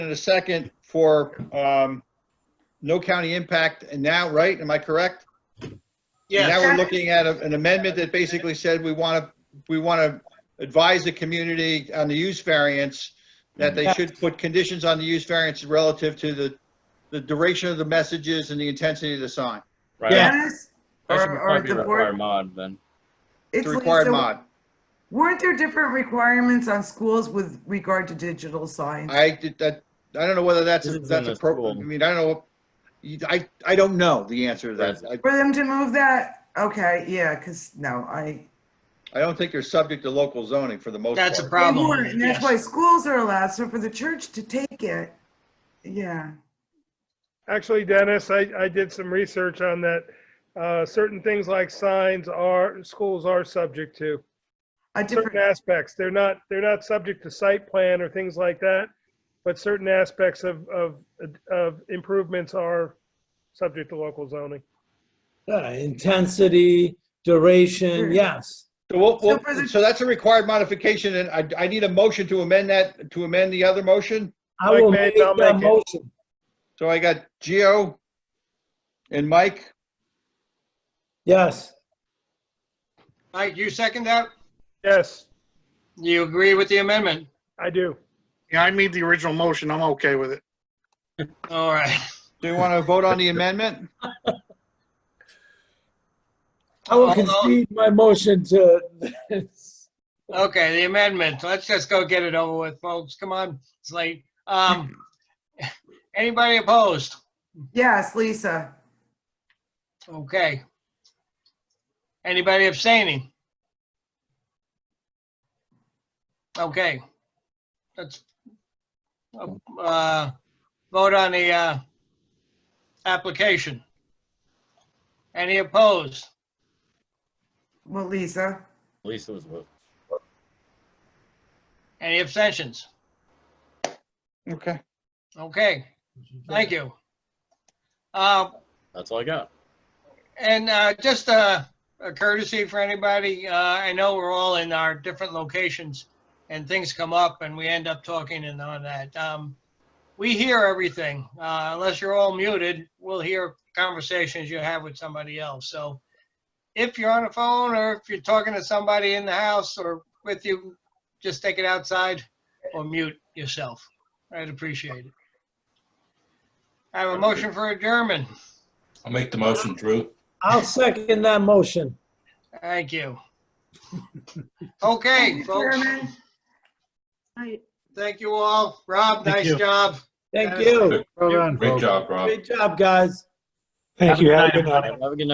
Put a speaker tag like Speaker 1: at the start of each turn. Speaker 1: and a second for um, no county impact and now, right? Am I correct? And Now we're looking at a- an amendment that basically said we want to, we want to advise the community on the use variance, that they should put conditions on the use variance relative to the, the duration of the messages and the intensity of the sign.
Speaker 2: Right.
Speaker 3: Yeah.
Speaker 4: Yes,
Speaker 2: That should
Speaker 4: Or- or
Speaker 2: probably be
Speaker 4: the
Speaker 2: required
Speaker 4: board-
Speaker 2: mod then.
Speaker 1: It's
Speaker 4: it's
Speaker 1: a required
Speaker 4: Lisa.
Speaker 1: mod.
Speaker 4: Weren't there different requirements on schools with regard to digital signs?
Speaker 1: I did that, I don't know whether that's,
Speaker 2: This is in
Speaker 1: that's
Speaker 2: the
Speaker 1: appropriate. I
Speaker 2: school.
Speaker 1: mean, I don't know. You- I, I don't know the answer to that. I-
Speaker 4: For them to move that? Okay, yeah, because no, I.
Speaker 1: I don't think you're subject to local zoning for the most part.
Speaker 5: That's a
Speaker 4: They
Speaker 5: problem.
Speaker 4: weren't, And that's
Speaker 5: yes.
Speaker 4: why schools are allowed, so for the church to take it, yeah.
Speaker 6: Actually, Dennis, I, I did some research on that. Uh, certain things like signs are, schools are subject to
Speaker 4: A
Speaker 6: certain
Speaker 4: different,
Speaker 6: aspects. They're not, they're not subject to site plan or things like that. But certain aspects of, of, of improvements are subject to local zoning.
Speaker 3: Yeah, Uh, intensity, duration,
Speaker 4: Sure.
Speaker 3: yes.
Speaker 1: So we'll-
Speaker 4: So for
Speaker 1: we'll,
Speaker 4: the-
Speaker 1: so that's a required modification, and I, I need a motion to amend that, to amend the other motion.
Speaker 3: I
Speaker 6: Mike
Speaker 3: will
Speaker 6: made
Speaker 3: make
Speaker 6: it, I'll
Speaker 3: that
Speaker 6: make it.
Speaker 3: motion.
Speaker 1: So I got Gio and Mike.
Speaker 3: Yes,
Speaker 5: Mike, you second that?
Speaker 6: Yes,
Speaker 5: You agree with the amendment?
Speaker 6: I do.
Speaker 7: Yeah, I made the original motion. I'm okay with it.
Speaker 5: All right.
Speaker 1: Do you want to vote on the amendment?
Speaker 3: I will
Speaker 5: Although-
Speaker 3: concede my motion to this.
Speaker 5: Okay, the amendment. Let's just go get it over with, folks. Come on, it's late. Um, anybody opposed?
Speaker 4: yes, Lisa,
Speaker 5: Okay. Anybody abstaining? Okay. Let's uh, vote on the uh, application. Any opposed?
Speaker 4: well, Lisa,
Speaker 2: Lisa was with.
Speaker 5: Any abstentions?
Speaker 1: Okay.
Speaker 5: Okay, thank you. Uh,
Speaker 2: That's all I got.
Speaker 5: And uh, just uh, a courtesy for anybody, uh, I know we're all in our different locations and things come up and we end up talking and on that. Um, We hear everything. Uh, Unless you're all muted, we'll hear conversations you have with somebody else. So if you're on the phone or if you're talking to somebody in the house or with you, just take it outside or mute yourself. I'd appreciate it. I have a motion for adjournment.
Speaker 8: I'll make the motion, Drew.
Speaker 3: I'll second that motion.
Speaker 5: Thank you. Okay,
Speaker 4: Thank you,
Speaker 5: folks,
Speaker 4: Chairman.
Speaker 5: thank you all. Rob,
Speaker 2: Thank
Speaker 5: nice
Speaker 2: you.
Speaker 5: job.
Speaker 3: Thank you.
Speaker 8: Great job, Rob.
Speaker 3: Great job, guys.
Speaker 2: Have a good night. everybody. Have a good night.